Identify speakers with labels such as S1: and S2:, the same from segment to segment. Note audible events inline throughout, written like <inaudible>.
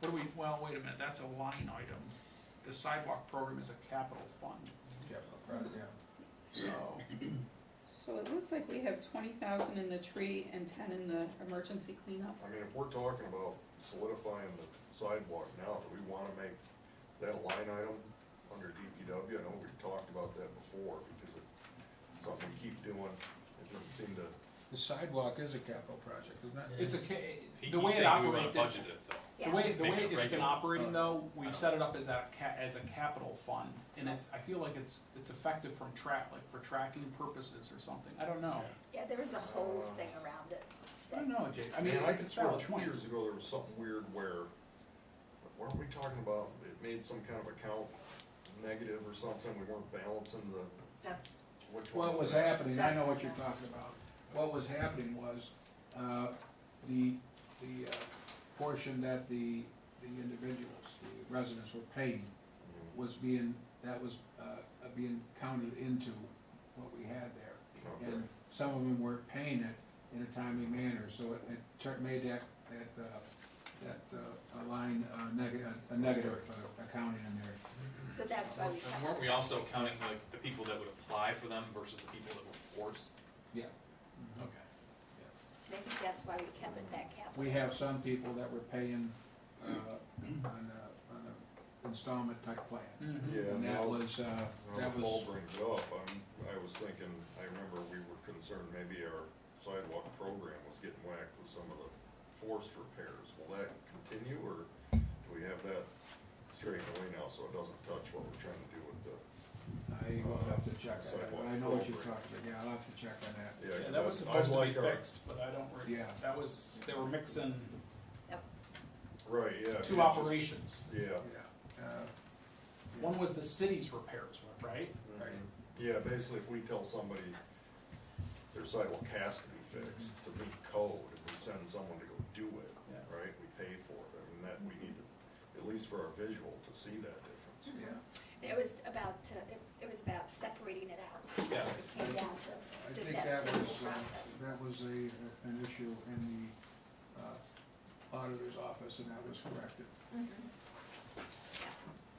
S1: What do we, well, wait a minute, that's a line item. The sidewalk program is a capital fund, so,
S2: So it looks like we have twenty thousand in the tree and ten in the emergency cleanup.
S3: I mean, if we're talking about solidifying the sidewalk now, do we wanna make that a line item under DPW? I know we've talked about that before, because it's something we keep doing, it doesn't seem to,
S4: The sidewalk is a capital project, isn't it?
S1: it's a, ca-
S5: He-
S1: the
S5: he
S1: way
S5: said
S1: it
S5: we wanna
S1: operates,
S5: budget it, though.
S1: the way, the
S5: Make
S1: way
S5: it
S1: it's been
S5: regular. Uh,
S1: operating though, we've
S5: don't-
S1: set it up as a ca- as a capital fund. And it's, I feel like it's, it's effective from track, like for tracking purposes or something, I don't know.
S6: Yeah, there was a whole thing around it.
S1: I don't know, Jake, I mean,
S3: Man, I could
S1: it's a
S3: swear
S1: valid
S3: two
S1: point.
S3: years ago, there was something weird where, what are we talking about? It made some kind of account negative or something, we weren't balancing the,
S6: That's,
S3: which one
S4: What was
S3: it?
S4: happening, I know what you're talking about, what was happening was, uh, the, the, uh, portion that the, the individuals, the residents were paying
S3: Mm,
S4: was being, that was, uh, uh, being counted into what we had there.
S3: okay.
S4: and some of them weren't paying it in a timely manner, so it, it tur- made that, that, uh, that, uh, a line, uh, negative, a negative uh, accounting in there.
S6: so that's why we
S5: And weren't we
S6: have,
S5: also counting like the people that would apply for them versus the people that were forced?
S4: Yeah.
S5: Okay.
S6: I think that's why we kept it that capital.
S4: We have some people that were paying, uh, on a, on a installment type plan,
S1: Mhm.
S3: Mm-hmm. Yeah,
S4: and that
S3: now-
S4: was, uh,
S3: Now
S4: that
S3: that Paul
S4: was,
S3: brings it up, I'm, I was thinking, I remember we were concerned maybe our sidewalk program was getting whacked with some of the forced repairs. Will that continue, or do we have that straightened away now, so it doesn't touch what we're trying to do with the?
S4: I will have to check on that,
S3: Sidewalk
S4: but I know what you're
S3: program.
S4: talking about, yeah, I'll have to check on that,
S1: Yeah,
S3: 'cause
S1: that was
S3: I'd- I'd
S1: supposed to be
S3: like uh, our-
S1: fixed, but I don't, re-
S4: yeah.
S1: that was, they were mixing
S3: Right, yeah. I mean, it's just-
S1: two operations.
S3: Yeah.
S4: Yeah, uh, yeah.
S1: One was the city's repairs, right?
S3: Mm-hmm.
S4: Right.
S3: Yeah, basically, if we tell somebody their sidewalk has to be fixed to meet code, and we send someone to go do it,
S1: Yeah.
S3: right, we pay for it, I mean, that, we need to, at least for our visual, to see that difference.
S4: Yeah.
S6: It was about, uh, it, it was about separating it out.
S5: Yes.
S6: It came down
S4: I
S6: to just
S4: think that
S6: that
S4: was,
S6: simple
S4: uh,
S6: process.
S4: that was a, an issue in the uh, auditor's office, and that was corrected.
S6: Mhm.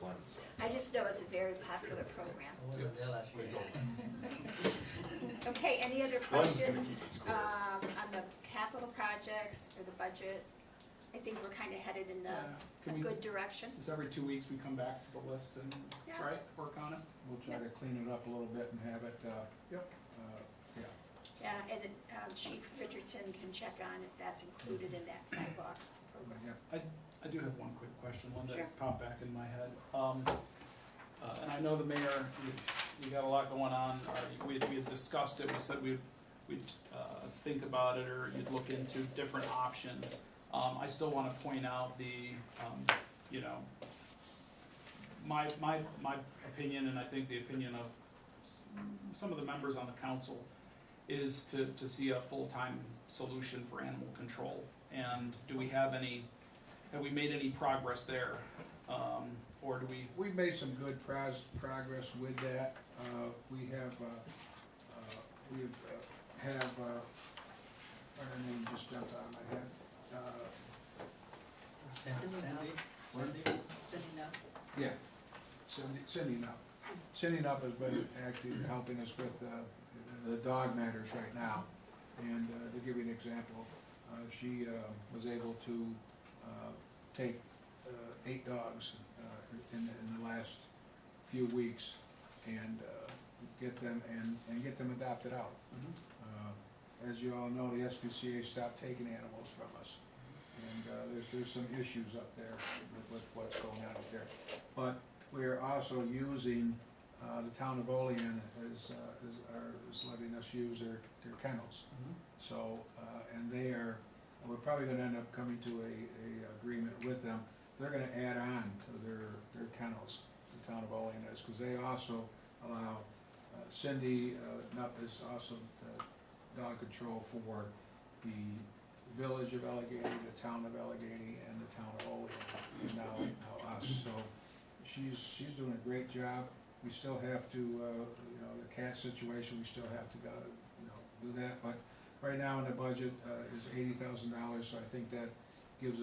S3: Lens. uh,
S6: I just know it's a very popular program.
S7: I wasn't there last year.
S6: <laughs> Okay, any other
S3: Glenn's gonna
S6: questions,
S3: keep it square.
S6: um, on the capital projects or the budget? I think we're kinda headed in
S1: Yeah.
S6: the, a
S1: Can we,
S6: good direction.
S1: just every two weeks, we come back to the list and,
S6: Yeah.
S1: right, work on it?
S4: We'll try to clean it up a little bit and have it, uh,
S1: Yep.
S4: uh, yeah.
S6: Yeah, and, um, Chief Richardson can check on if that's included in that sidewalk program.
S4: yeah.
S1: I do have one quick question, one
S6: Sure.
S1: that popped back in my head. Um, uh, and I know the mayor, you, you got a lot going on, or we, we had discussed it, we said we'd, we'd, uh, think about it, or you'd look into different options. Um, I still wanna point out the, um, you know, my, my, my opinion, and I think the opinion of s- some of the members on the council, is to, to see a full-time solution for animal control. And do we have any, have we made any progress there? Um, or do we,
S4: We've made some good pros, progress with that. Uh, we have, uh, uh, we have, uh, have, uh, her name just jumped out of my head. Uh,
S7: Cindy now.
S4: What?
S7: Cindy, Cindy now.
S4: yeah, Cindy, Cindy Nupp. Cindy Nupp has been actually helping us with, uh, the dog matters right now. And, uh, to give you an example, uh, she, uh, was able to, uh, take, uh, eight dogs, uh, in, in the last few weeks and, uh, get them, and, and get them adopted out. Uh, As you all know, the SPCA stopped taking animals from us. And uh, there's, there's some issues up there with- with what's going on up there. But we're also using, uh, the town of Olean is, uh, is, are- is letting us use their, their kennels. So, uh, and they are, we're probably gonna end up coming to a, a agreement with them. They're gonna add on to their, their kennels, the town of Olean is, because they also allow uh, Cindy uh, Nupp is also the dog control for the village of Allegheny, the town of Allegheny, and the town of Olean, and now, now us. So she's, she's doing a great job. We still have to, uh, you know, the cat situation, we still have to, go, you know, do that. But right now in the budget uh, is eighty thousand dollars, so I think that gives